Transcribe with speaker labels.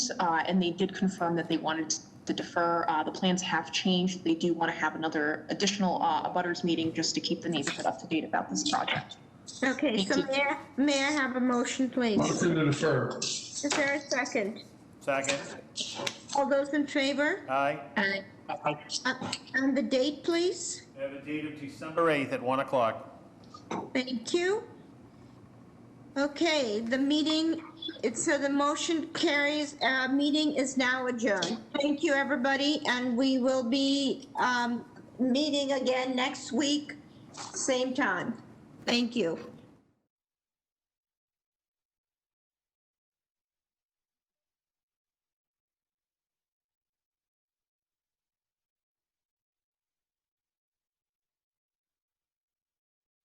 Speaker 1: uh, and they did confirm that they wanted to defer. Uh, The plans have changed. They do want to have another additional uh, abutters meeting just to keep the neighborhood up to date about this project.
Speaker 2: Okay, so may I, may I have a motion, please?
Speaker 3: Motion to defer.
Speaker 2: Is there a second?
Speaker 4: Second,
Speaker 2: All those in favor?
Speaker 4: aye.
Speaker 1: Aye.
Speaker 2: Uh, And the date, please?
Speaker 4: We have a date of December 8th at 1 o'clock.
Speaker 2: Thank you. Okay, the meeting, it, so the motion carries, uh, meeting is now adjourned. Thank you, everybody, and we will be, um, meeting again next week, same time. Thank you.